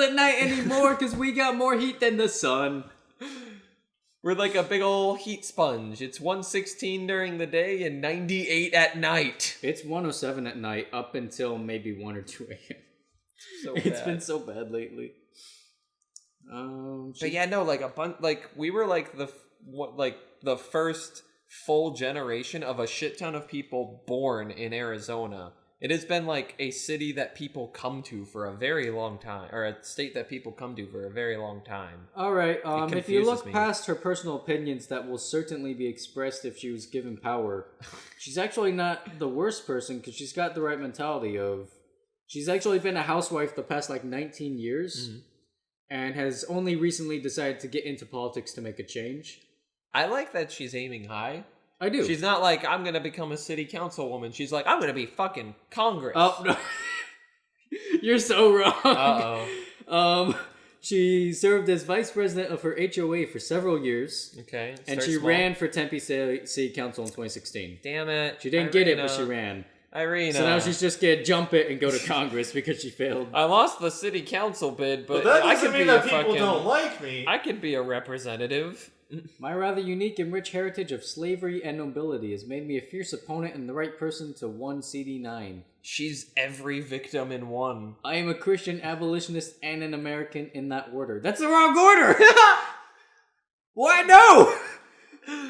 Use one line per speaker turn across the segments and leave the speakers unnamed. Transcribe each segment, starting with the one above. at night anymore because we got more heat than the sun.
We're like a big old heat sponge. It's 116 during the day and 98 at night.
It's 107 at night up until maybe 1 or 2 a.m.
So
It's
bad.
been so bad lately. Um,
But
she-
yeah, no, like a bunch. Like we were like the f- what, like the first full generation of a shit ton of people born in Arizona. It has been like a city that people come to for a very long time, or a state that people come to for a very long time.
All right. Um, if you
confuses
look
me.
past her personal opinions that will certainly be expressed if she was given power, she's actually not the worst person because she's got the right mentality of. She's actually been a housewife the past like 19 years and has only recently decided to get into politics to make a change.
I like that she's aiming high.
I do.
She's not like I'm gonna become a city councilwoman. She's like I'm gonna be fucking Congress.
Oh, no. You're so wrong.
Uh oh.
Um, she served as vice president of her HOA for several years,
Okay.
and
start
she
small.
ran for Tempe City City Council in 2016.
Damn it.
She didn't get it, but
Irina.
she ran.
Irina.
So now she's just gonna jump it and go to Congress because she failed.
I lost the city council bid, but,
But that
I
doesn't
could be
mean
a
that people
fucking.
don't like me.
I could be a representative.
My rather unique and rich heritage of slavery and nobility has made me a fierce opponent and the right person to one CD9.
She's every victim in one.
I am a Christian abolitionist and an American in that order. That's the wrong order! Why no?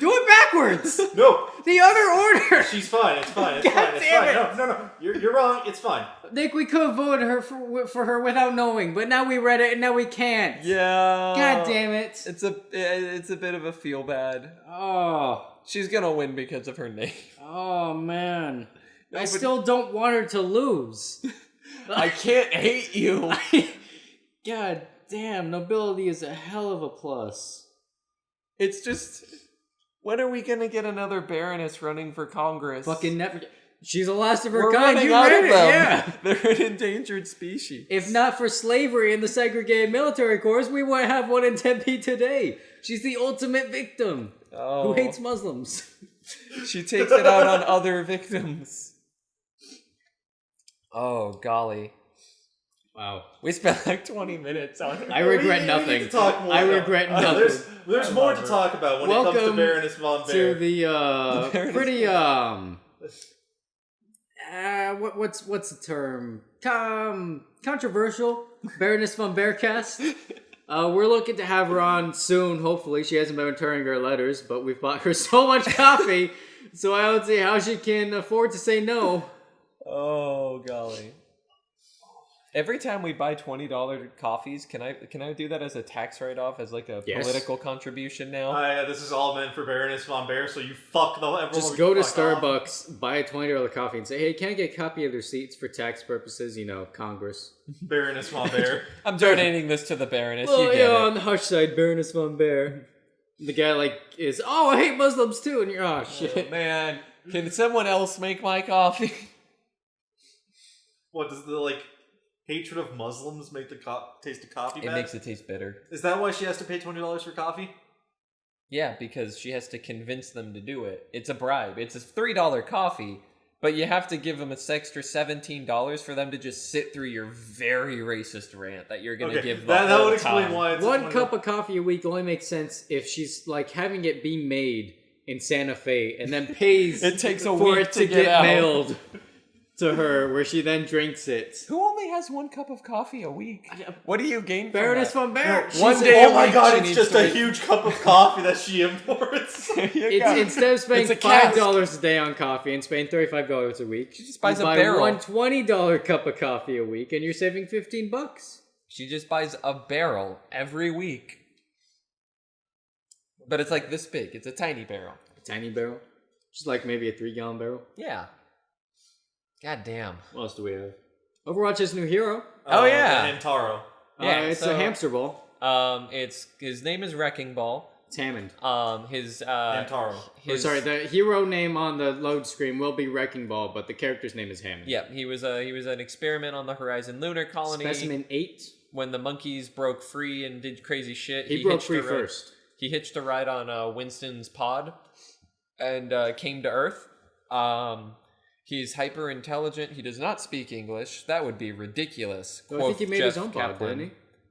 Do it backwards!
no,
The other order!
she's fine. It's fine. It's fine. It's
damn
fine. No, no, no. You're, you're wrong. It's fine.
Nick, we could have voted her for, for her without knowing, but now we read it and now we can't.
Yeah.
God damn it.
It's a it's a bit of a feel bad.
Oh,
She's gonna win because of her name.
oh man. I
but-
still don't want her to lose.
I can't hate you.
God damn, nobility is a hell of a plus.
It's just when are we gonna get another Baroness running for Congress?
Fucking never. She's the last of her
we're
kind.
running
You
out
read
of
it,
them.
yeah.
They're an endangered species.
If not for slavery and the segregated military corps, we wouldn't have one in Tempe today. She's the ultimate victim
oh,
who hates Muslims.
She takes it out on other victims. Oh golly.
Wow.
We spent like 20 minutes on her.
I
We-
regret
we need
nothing.
to talk more
I
about-
regret
Uh,
nothing.
There's, there's
I
more
love
to
her.
talk about when it comes
Welcome
to Baroness von
to
Baer.
the uh,
The Baroness
pretty
Bear.
um uh, what what's what's the term Com- controversial Baroness von Bearcast. Uh, we're looking to have her on soon. Hopefully, she hasn't been returning her letters, but we've bought her so much coffee, so I don't see how she can afford to say no.
Oh golly. Every time we buy twenty dollar coffees, can I can I do that as a tax write off as like a
Yes.
political contribution now?
Uh, yeah, this is all meant for Baroness von Baer, so you fuck the everyone.
Just
would
go to
fuck off.
Starbucks, buy a twenty dollar coffee, and say, "Hey, can I get a copy of the receipts for tax purposes?" You know, Congress.
Baroness von Baer.
I'm donating this to the Baroness. you
Well,
get
yeah,
it.
on the hush side, Baroness von Bear. The guy like is oh I hate Muslims too, and you're oh
Oh,
shit.
man, can someone else make my coffee?
what does the like hatred of Muslims make the co- taste of coffee
it
bad?
makes it taste bitter.
Is that why she has to pay twenty dollars for coffee?
Yeah, because she has to convince them to do it. It's a bribe. It's a three dollar coffee, but you have to give them an extra seventeen dollars for them to just sit through your very racist rant that you're gonna
Okay,
give. The
that, that
whole
would explain
time.
why it's
One cup of coffee a week only makes sense if she's like having it be made in Santa Fe and then pays
It takes a
for
week
it
to get out.
mailed to her, where she then drinks it.
Who only has one cup of coffee a week? What do you gain from
Baroness
that?
von Bear.
one
she's-
day-
Oh my
She
god, it's
needs
just
to
a
make-
huge cup of coffee that she imports.
Here you go.
It's, instead of
It's a
spending five
cask.
dollars a day on coffee and spending thirty five dollars a week, she
just buys a
buy
barrel.
one twenty dollar cup of coffee a week, and you're saving fifteen bucks.
She just buys a barrel every week. But it's like this big. It's a tiny barrel.
A tiny barrel, just like maybe a three gallon barrel.
Yeah. God damn.
What else do we have? Overwatch is new hero.
Oh, yeah.
and Hamtaro.
Yeah,
uh, it's
so-
a hamster ball.
Um, it's his name is Wrecking Ball.
It's Hammond.
Um, his uh,
Hamtaro.
Or
his
sorry, the hero name on the load screen will be Wrecking Ball, but the character's name is Hammond.
yeah, he was a he was an experiment on the Horizon Lunar Colony.
Specimen eight.
When the monkeys broke free and did crazy shit,
He, broke
hitched
free
a ride-
first.
He hitched a ride on uh, Winston's pod and uh, came to Earth. Um, he's hyper intelligent. He does not speak English. That would be ridiculous.
So I think
quoth
he made his
Jeff
own pod,
Kaplan.
didn't he?